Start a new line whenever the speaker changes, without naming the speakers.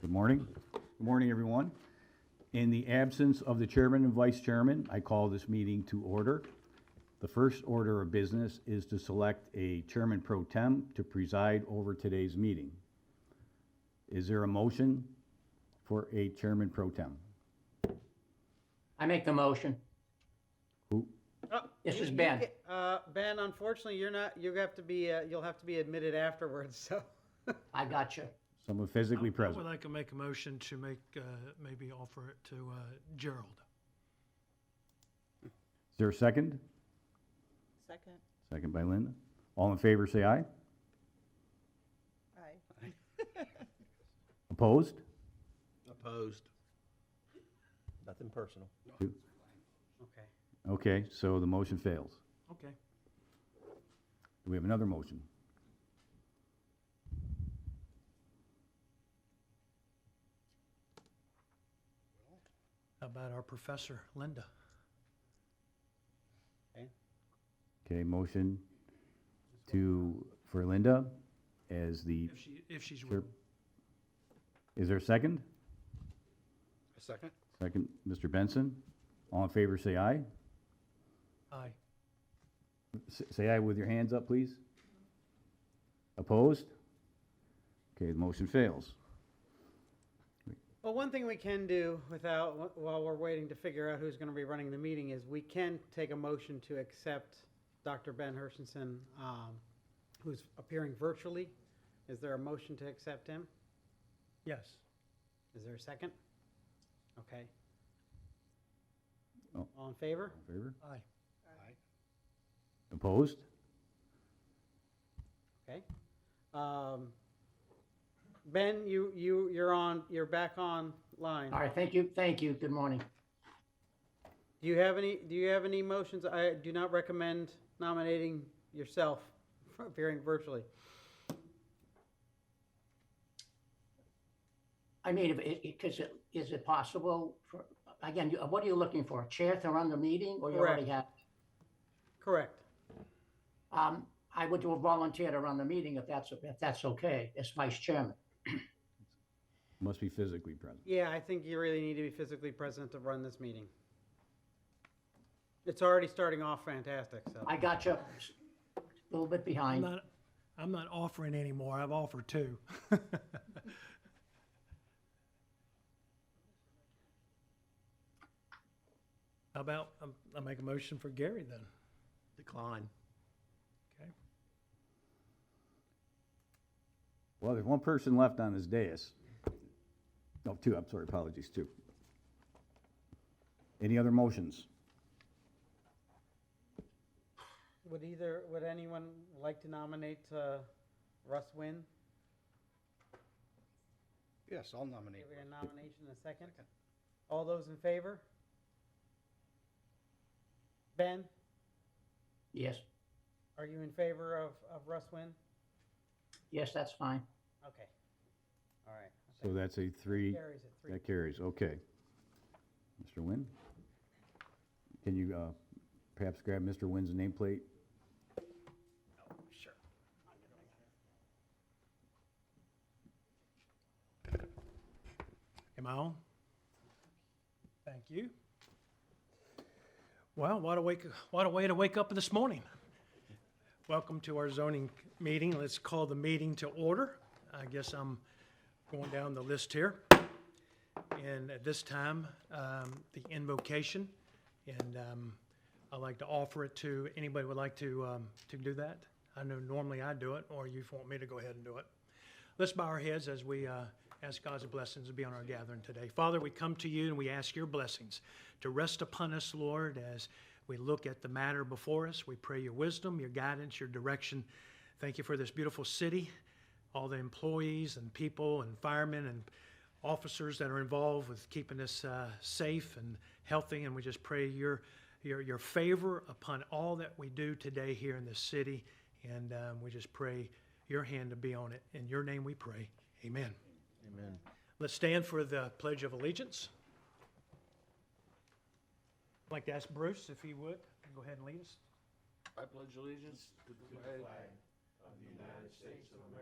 Good morning. Good morning, everyone. In the absence of the chairman and vice chairman, I call this meeting to order. The first order of business is to select a chairman pro tem to preside over today's meeting. Is there a motion for a chairman pro tem?
I make the motion.
Oh,
This
you-
is
you
Ben.
get- Uh, Ben, unfortunately, you're not, you have to be, uh, you'll have to be admitted afterwards, so.
I got you.
Someone physically
I would
present.
like to make a motion to make, uh, maybe offer it to uh, Gerald.
Is there a second?
Second.
Second by Linda. All in favor, say aye.
Aye.
Opposed?
Opposed. Nothing personal.
Okay.
Okay, so the motion fails.
Okay.
Do we have another motion?
How about our professor, Linda?
Okay, motion to, for Linda as the,
If she, if she's
Sure.
willing.
is there a second?
A second?
Second, Mr. Benson. All in favor, say aye.
Aye.
S- Say aye with your hands up, please. Opposed? Okay, the motion fails.
Well, one thing we can do without, while we're waiting to figure out who's gonna be running the meeting is we can take a motion to accept Dr. Ben Hershenson, um, who's appearing virtually. Is there a motion to accept him?
Yes.
Is there a second? Okay.
Oh.
All in favor?
All in Favor?
Aye.
Opposed?
Okay. Um, Ben, you, you, you're on, you're back online.
All right, thank you, thank you, good morning.
Do you have any, do you have any motions? I do not recommend nominating yourself for appearing virtually.
I mean, if it, because it, is it possible for, again, you- what are you looking for? A chair to run the meeting or you already have?
Correct.
Um, I would do a volunteer to run the meeting if that's, if that's okay, as vice chairman.
Must be physically present.
Yeah, I think you really need to be physically present to run this meeting. It's already starting off fantastic, so.
I got you. A little bit
I'm
behind.
not, I'm not offering anymore. I've offered two. How about, um, I make a motion for Gary then?
Decline.
Okay.
Well, there's one person left on this dais. Oh, two, I'm sorry, apologies, two. Any other motions?
Would either, would anyone like to nominate, uh, Russ Wynn?
Yes, I'll nominate.
Give it a nomination in a second. All those in favor? Ben,
Yes,
are you in favor of, of Russ Wynn?
yes, that's fine.
Okay. All right. I
So
think
that's a three.
Carries at three.
That carries, okay. Mr. Nguyen? Can you uh, perhaps grab Mr. Nguyen's nameplate?
Sure.
Am I on? Thank you. Well, what a wake, what a way to wake up this morning. Welcome to our zoning meeting. Let's call the meeting to order. I guess I'm going down the list here. And at this time, um, the invocation, and um, I'd like to offer it to, anybody would like to, um, to do that? I know normally I do it, or you want me to go ahead and do it. Let's bow our heads as we uh, ask God's blessings to be on our gathering today. Father, we come to you and we ask your blessings to rest upon us, Lord, as we look at the matter before us. We pray your wisdom, your guidance, your direction. Thank you for this beautiful city, all the employees and people and firemen and officers that are involved with keeping us uh, safe and healthy. And we just pray your, your, your favor upon all that we do today here in this city. And um, we just pray your hand to be on it. In your name we pray. Amen.
Amen.
Let's stand for the Pledge of Allegiance. I'd like to ask Bruce if he would go ahead and lead us.
I pledge allegiance to the flag of the United States of